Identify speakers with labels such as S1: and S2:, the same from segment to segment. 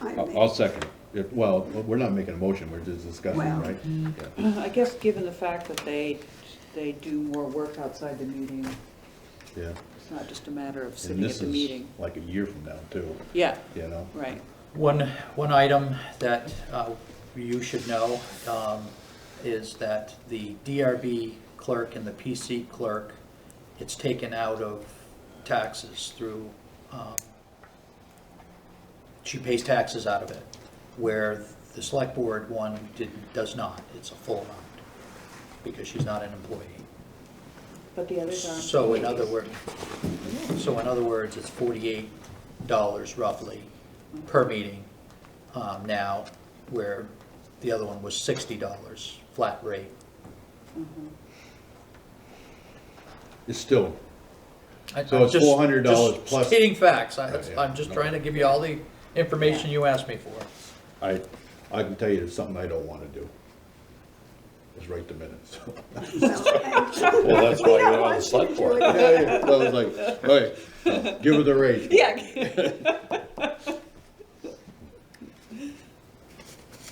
S1: I
S2: Oh,
S3: I'll,
S1: make-
S3: I'll second it. If- Well, we're not making a motion, we're just discussing,
S1: Well.
S3: right? Yeah.
S4: I guess given the fact that they, they do more work outside the meeting,
S3: Yeah.
S4: it's not just a matter of
S3: And
S4: sitting at
S3: this
S4: the
S3: is
S4: meeting.
S3: like a year from now too,
S4: Yeah,
S3: you know?
S4: right.
S5: One, one item that uh, you should know um, is that the DRB clerk and the PC clerk, it's taken out of taxes through, um, she pays taxes out of it, where the select board one did, does not. It's a full amount, because she's not an employee.
S4: But the others are.
S5: So in other words, so in other words, it's forty-eight dollars roughly per meeting um, now, where the other one was sixty dollars, flat rate.
S3: It's still,
S5: I-
S3: So
S5: I'm
S3: it's
S5: just-
S3: $400
S5: just
S3: plus-
S5: Stating facts, I-
S3: Right, yeah.
S5: I'm just trying to give you all the information you asked me for.
S3: I, I can tell you it's something I don't wanna do. Is write the minutes.
S1: Well,
S2: Well, that's why
S1: I-
S2: you're on the select board.
S3: Yeah, yeah. I was like, all right, give her the raise.
S4: Yeah.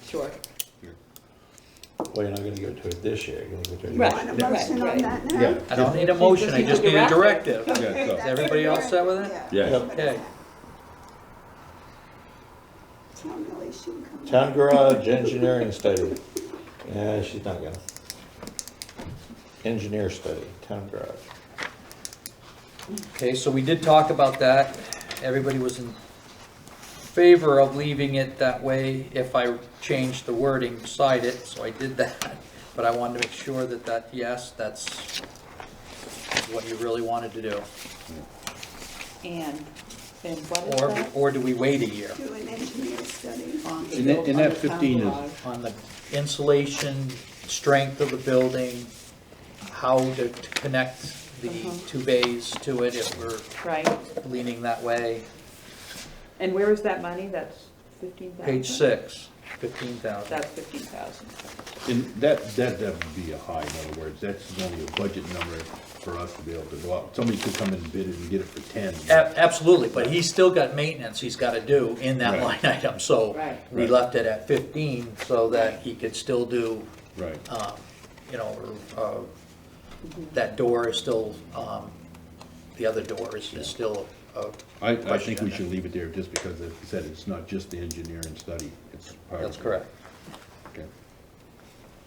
S4: Sure.
S2: Well, you're not gonna go to it this year, you're gonna go to it
S4: Right.
S2: next
S1: Want a
S2: year.
S1: motion on
S4: Right,
S1: that now?
S3: Yeah.
S5: I don't need a motion, I just need a directive.
S3: Yeah, so-
S1: That's
S5: everybody else set with it?
S1: Yeah.
S2: Yes.
S5: Okay.
S1: Town relation company.
S2: Town garage engineering study. Yeah, she's not gonna. Engineer study, town garage.
S5: Okay, so we did talk about that. Everybody was in favor of leaving it that way if I changed the wording beside it, so I did that. But I wanted to make sure that that, yes, that's what you really wanted to do.
S4: And, and what is
S5: Or,
S4: that?
S5: or do we wait a year
S1: Do an engineer study.
S4: On the
S3: And that-
S4: built-
S3: and
S4: on
S3: that
S4: the town
S3: 15 is-
S4: garage.
S5: on the insulation, strength of the building, how to to connect the
S4: Mhm.
S5: two bays to it if we're
S4: Right,
S5: leaning that way?
S4: and where is that money? That's fifteen thousand?
S5: Page six, fifteen thousand.
S4: That's fifteen thousand.
S3: And that, that, that would be a high, in other words, that's gonna be a budget number for us to be able to go out. Somebody could come and bid it and get it for ten.
S5: A- Absolutely, but he's still got maintenance he's gotta do in that line
S3: Right.
S5: item, so
S4: Right.
S5: we left it at fifteen so that he could still do,
S3: Right,
S5: um, you know, uh, that door is still, um, the other door is, is still a.
S3: I, I think
S5: question on
S3: we
S5: that.
S3: should leave it there just because it said it's not just the engineering study, it's. part of
S5: That's
S3: it.
S5: correct.
S3: Okay.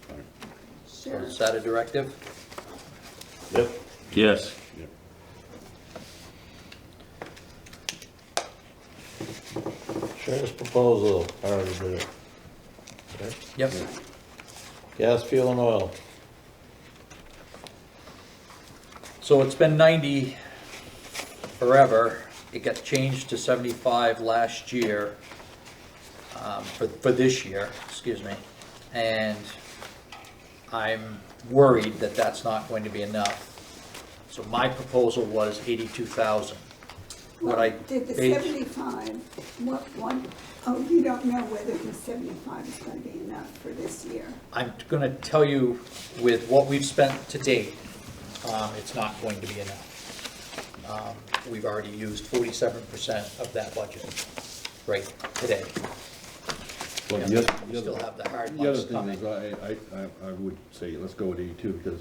S3: All right,
S5: So
S1: Sure.
S5: is that a directive?
S2: Yep.
S6: Yes.
S3: yeah.
S2: Sheriff's proposal, I already did it. Okay.
S5: Yep,
S2: Gas, fuel and oil.
S5: so it's been ninety forever, it got changed to seventy-five last year, um, for, for this year, excuse me, and I'm worried that that's not going to be enough. So my proposal was eighty-two thousand. What I,
S1: Did the
S5: ba-
S1: seventy-five, what, one, oh, you don't know whether the seventy-five is gonna be enough for this year.
S5: I'm gonna tell you with what we've spent to date, um, it's not going to be enough. Um, We've already used forty-seven percent of that budget, right, today.
S3: Well,
S5: Yeah,
S3: the other-
S5: we
S3: the
S5: still
S3: other-
S5: have the hard
S3: The other
S5: ones
S3: thing
S5: coming.
S3: is, I, I, I, I would say, let's go with eighty-two, because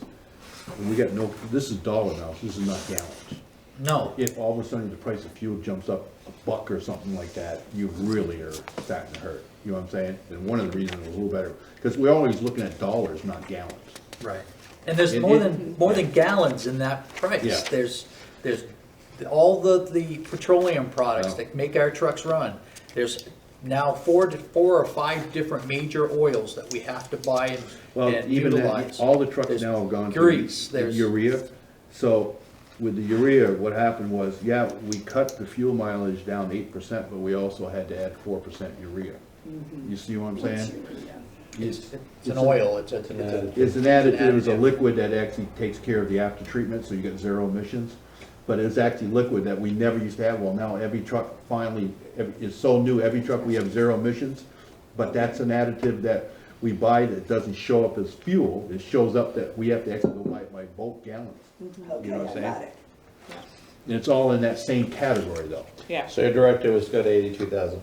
S3: when we got no, this is dollar now, this is not gallons.
S5: No,
S3: If all of a sudden the price of fuel jumps up a buck or something like that, you really are starting to hurt, you know what I'm saying? And one of the reasons it was a little better, because we're always looking at dollars, not gallons.
S5: right. And there's
S3: It-
S5: more
S3: it-
S5: than, more than gallons in that
S3: Yeah.
S5: price. There's, there's all the, the petroleum products
S3: Yeah.
S5: that make our trucks run. There's now four, to four or five different major oils that we have to buy and-
S3: Well,
S5: and
S3: even
S5: utilize.
S3: that, all the trucks
S5: There's
S3: now have gone to
S5: Grease, there's.
S3: urea. So with the urea, what happened was, yeah, we cut the fuel mileage down eight percent, but we also had to add four percent urea. You see what I'm saying?
S5: It's Mm-hmm. it's an oil, it's a, it's a-
S3: It's an additive, it's a liquid that actually takes care of the after treatment, so you get zero emissions. But it's actually liquid that we never used to have, well, now every truck finally, ev- is so new, every truck we have zero emissions. But that's an additive that we buy that doesn't show up as fuel, it shows up that we have to actually go buy it by bulk gallons.
S1: Mm-hmm. Okay,
S3: know what I'm
S1: I got
S3: saying?
S1: it.
S3: And it's all in that same category though.
S4: Yeah.
S2: So your directive was go to eighty-two thousand.